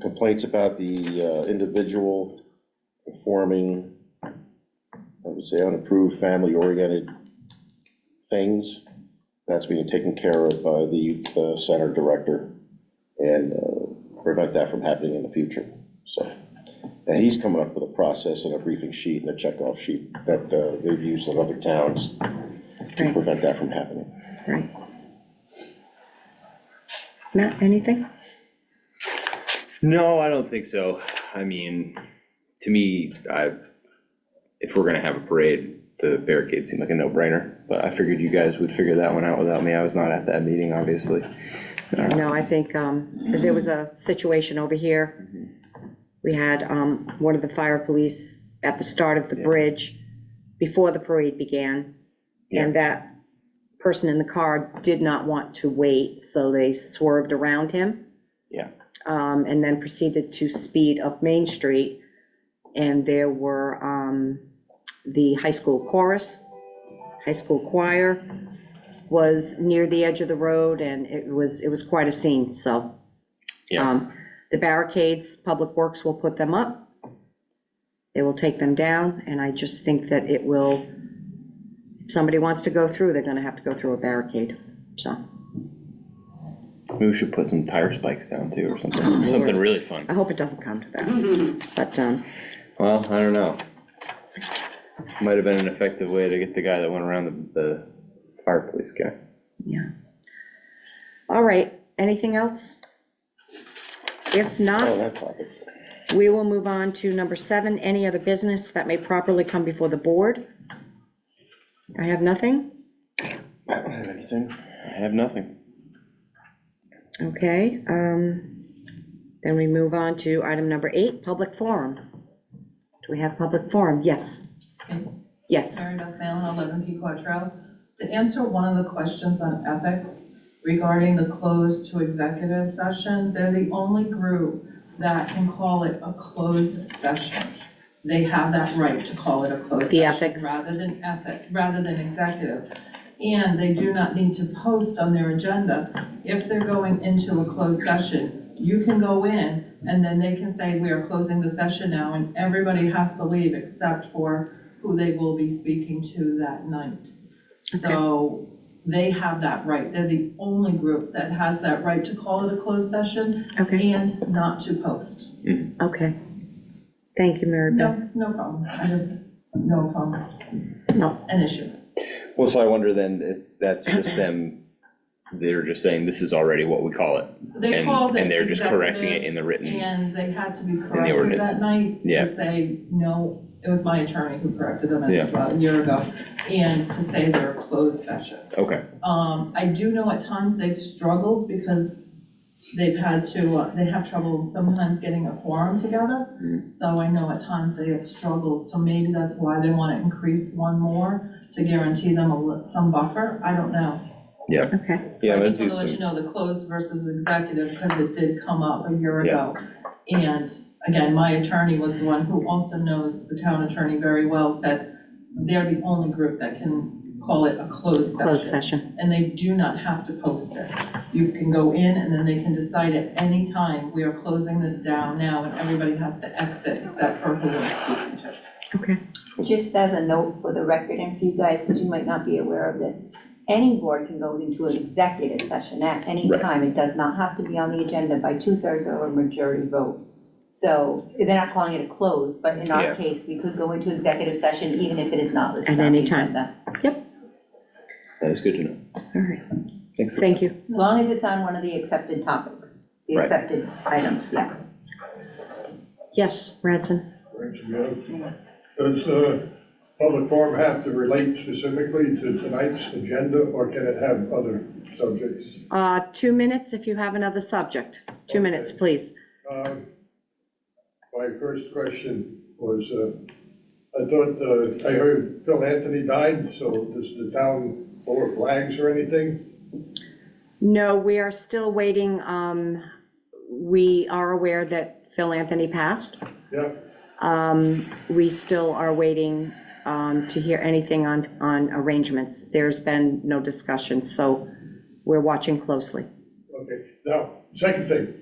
complaints about the uh, individual performing, I would say unapproved, family-oriented things. That's being taken care of by the youth uh, center director and uh, prevent that from happening in the future, so. And he's coming up with a process and a briefing sheet and a checkoff sheet that uh, they've used in other towns to Right. prevent that from happening. Right. Matt, anything? No, I don't think so. I mean, to me, I, if we're gonna have a parade, the barricade seemed like a no-brainer. But I figured you guys would figure that one out without me. I was not at that meeting, obviously. Yeah, no, I think, um, there was a situation over here. We had, um, one of the fire police at the start of the bridge, before the parade began. And that person in the car did not want to wait, so they swerved around him. Yeah. Um, and then proceeded to speed up Main Street. And there were, um, the high school chorus, high school choir, was near the edge of the road, and it was, it was quite a scene, so. Yeah. um, The barricades, Public Works will put them up. They will take them down, and I just think that it will, if somebody wants to go through, they're gonna have to go through a barricade, so. Maybe we should put some tire spikes down too or something, something really fun. I hope it doesn't come to that, but, um, Well, I don't know. Might have been an effective way to get the guy that went around the, the fire police guy. yeah. All right, anything else? If not. Oh, that topic. We will move on to number seven, any other business that may properly come before the board. I have nothing, I don't have anything. I have nothing. okay. um, Then we move on to item number eight, public forum. Do we have public forum? Yes. Yes, Karen Beth Mallon, 11 P Quattro. To answer one of the questions on ethics regarding the closed to executive session, they're the only group that can call it a closed session. They have that right to call it a closed The session. ethics. Rather than ethic, rather than executive. And they do not need to post on their agenda if they're going into a closed session. You can go in and then they can say, we are closing the session now and everybody has to leave except for who they will be speaking to that night. So they have that right. They're the only group that has that right to call it a closed session okay, and not to post. okay. Thank you, Mary Beth. No, no problem. I just, no problem, No, an issue. Well, so I wonder then if that's just them, they're just saying this is already what we call it. They And, called it and they're just correcting it in the executive, written, And they had to be corrected ordinance. that night Yeah. to say, no, it was my attorney who corrected them I think, Yeah. about a year ago. And to say they're a closed session. okay, Um, I do know at times they've struggled because they've had to, uh, they have trouble sometimes getting a quorum together. Mm. So I know at times they have struggled, so maybe that's why they want to increase one more to guarantee them a, li- some buffer, I don't know. okay, yeah, I let's just do want to let you some, know the closed versus executive because it did come up a year Yeah. ago. And again, my attorney was the one who also knows the town attorney very well, said they're the only group that can call it a closed session closed session, and they do not have to post it. You can go in and then they can decide at any time, we are closing this down now and everybody has to exit except for who we're speaking to. okay. Just as a note for the record and for you guys, because you might not be aware of this, any board can go into an executive session at any Right. time. It does not have to be on the agenda by two-thirds or a majority vote. So they're not calling it a close, but in Yeah. our case, we could go into executive session even if it is not listed At on the any time. agenda. that's good to know, All right, thanks. thank you. As long as it's on one of the accepted topics, the Right. accepted items, yes. Yes, Radson, Thanks, Jim. Does uh, public forum have to relate specifically to tonight's agenda, or can it have other subjects? Uh, two minutes if you have another subject, two minutes, please. Um, My first question was, uh, I thought, uh, I heard Phil Anthony died, so does the town lower flags or anything? No, we are still waiting. um, We are aware that Phil Anthony passed. Yeah, Um, We still are waiting um, to hear anything on, on arrangements. There's been no discussion, so we're watching closely. okay. Now, second thing,